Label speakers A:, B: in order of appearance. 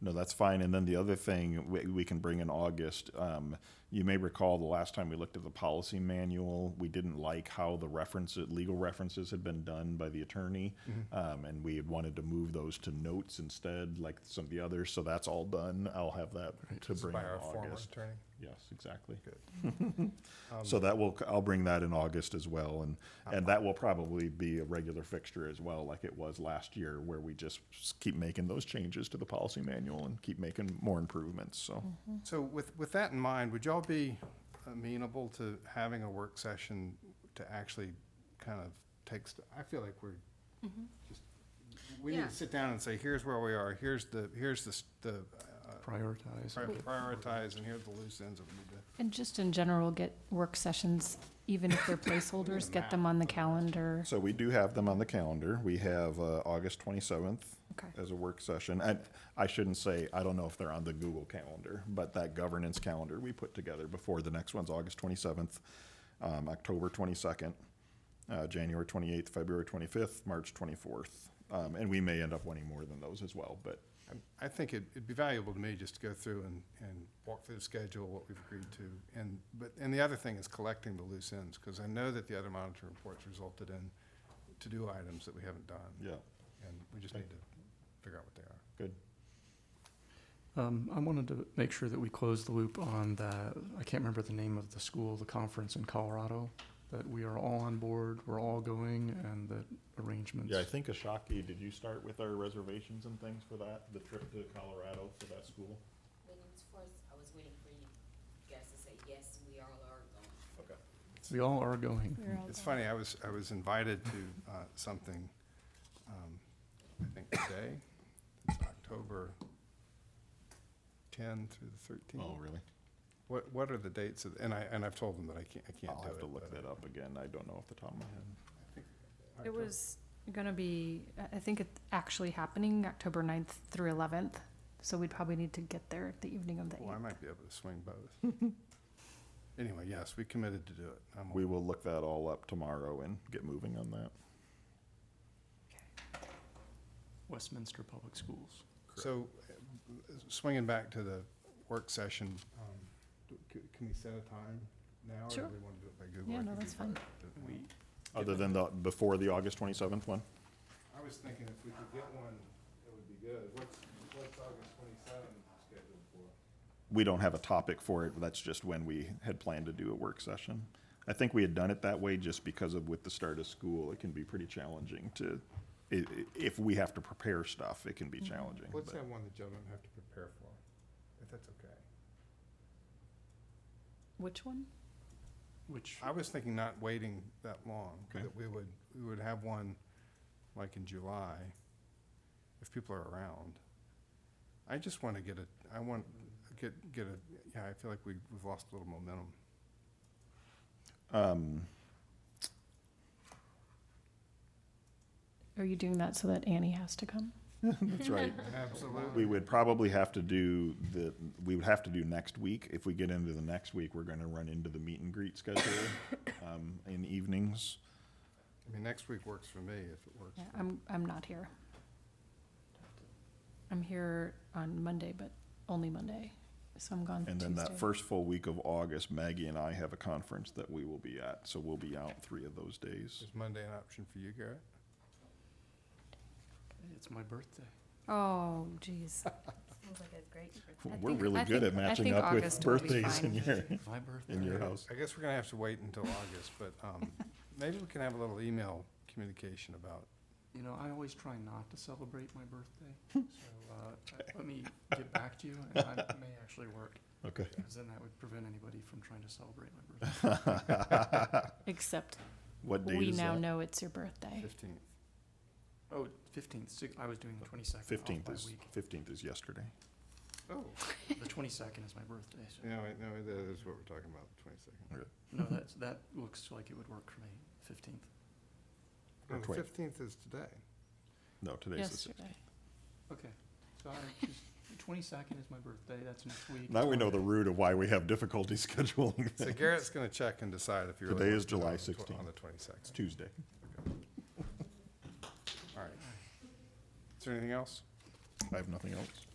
A: No, that's fine. And then the other thing we, we can bring in August, um, you may recall the last time we looked at the policy manual, we didn't like how the references, legal references had been done by the attorney. Um, and we had wanted to move those to notes instead, like some of the others. So that's all done. I'll have that to bring
B: by
A: in
B: our former
A: August.
B: attorney.
A: Yes, exactly.
B: Good.
A: So that will, I'll bring that in August as well, and, and that will probably be a regular fixture as well, like it was last year, where we just s- keep making those changes to the policy manual and keep making more improvements, so.
B: So with, with that in mind, would y'all be amenable to having a work session to actually kind of take, st- I feel like we're just, we need
C: Yeah.
B: to sit down and say, here's where we are, here's the, here's the, s- the uh,
D: prioritize.
B: pri- prioritize, and here are the loose ends that we need to.
C: And just in general, get work sessions, even if they're placeholders, get them on the calendar.
A: So we do have them on the calendar, we have, uh, August twenty-seventh
C: Okay.
A: as a work session, and I shouldn't say, I don't know if they're on the Google calendar, but that governance calendar we put together before, the next one's August twenty-seventh, um, October twenty-second, uh, January 28th, February 25th, March 24th. Um, and we may end up wanting more than those as well, but
B: I'm- I think it'd it'd be valuable to me just to go through and, and walk through the schedule, what we've agreed to. And, but, and the other thing is collecting the loose ends, because I know that the other monitor reports resulted in to-do items that we haven't done.
A: yeah,
B: And we just need to figure out what they are.
A: good.
D: Um, I wanted to make sure that we closed the loop on the, I can't remember the name of the school, the conference in Colorado, that we are all on board, we're all going, and the arrangements.
A: Yeah, I think Ashaki, did you start with our reservations and things for that, the trip to Colorado for that school?
E: When it was first, I was waiting for you guys to say, yes, we all are going.
A: Okay.
D: We all are going.
B: It's funny, I was, I was invited to uh, something, um, I think today, it's October 10 through the 13th.
A: Oh, really?
B: What, what are the dates of, and I, and I've told them that I can't, I can't
A: I'll
B: do it.
A: have to look
B: but
A: that up again. I don't know off the top of my head.
C: It
B: October-
C: was gonna be, I- I think it's actually happening October 9th through eleventh, so we'd probably need to get there the evening of the
B: Well, I
C: eighth.
B: might be able to swing both. Anyway, yes, we committed to do it. I'm
A: We will look that all up tomorrow and get moving on that.
D: Westminster Public Schools.
B: So, uh, swinging back to the work session, um, do- c- can we set a time now?
C: Sure.
B: Or do we want to do it by Google?
C: Yeah,
B: I
C: no,
B: could do
C: that's fine.
B: private, but-
D: We,
A: Other than the, before the August twenty-seventh one?
B: I was thinking if we could get one, it would be good. What's, what's August twenty-seven scheduled for?
A: we don't have a topic for it, but that's just when we had planned to do a work session. I think we had done it that way just because of with the start of school, it can be pretty challenging to, i- i- if we have to prepare stuff, it can be challenging.
B: Let's
A: but-
B: have one that y'all don't have to prepare for, if that's okay.
C: Which one?
D: which,
B: I was thinking not waiting that long,
A: Okay.
B: that we would, we would have one like in July, if people are around. I just want to get a, I want, get, get a, yeah, I feel like we, we've lost a little momentum.
A: Um,
C: Are you doing that so that Annie has to come?
A: that's right. We
B: Absolutely.
A: would probably have to do the, we would have to do next week. If we get into the next week, we're gonna run into the meet and greet schedule, um, in evenings.
B: I mean, next week works for me, if it works.
C: Yeah,
B: for-
C: I'm, I'm not here. I'm here on Monday, but only Monday, so I'm gone
A: And
C: Tuesday.
A: then that first full week of August, Maggie and I have a conference that we will be at, so we'll be out three of those days.
B: Is Monday an option for you, Garrett?
D: it's my birthday.
C: Oh, geez.
E: Sounds like a great.
C: I
A: We're
C: think-
A: really
C: I
A: good at
C: think- I
A: matching
C: think
A: up with
C: August will be
A: birthdays in
C: fine.
A: your,
D: My birthday.
A: in your
B: Okay,
A: house.
B: I guess we're gonna have to wait until August, but, um, maybe we can have a little email communication about,
D: You know, I always try not to celebrate my birthday, so, uh, let me get back to you, and I may actually work,
A: Okay.
D: because then that would prevent anybody from trying to celebrate my birthday.
C: Except
A: What date
C: we
A: is
C: now
A: that?
C: know it's your birthday.
B: fifteenth.
D: Oh, fifteenth, six, I was doing the twenty-second.
A: Fifteenth
C: Oh,
A: is, fifteenth is yesterday.
B: Oh,
D: The twenty-second is my birthday, so,
B: yeah, wait, no, that is what we're talking about, the twenty-second.
D: no, that's, that looks like it would work for me, fifteenth.
A: Or
B: No, the
A: twen-
B: Oh, fifteenth is today.
A: No, today's the sixteenth.
C: Yesterday.
D: Okay, so I just, the twenty-second is my birthday, that's next week.
A: Now we know the
D: It's
A: root of why we have difficulty scheduling.
B: So
A: things.
B: Garrett's gonna check and decide if you're.
A: Today is July
B: On
A: 16th.
B: the
A: It's
B: twenty-second,
A: Tuesday.
B: all right. Is there anything else?
A: I have nothing else.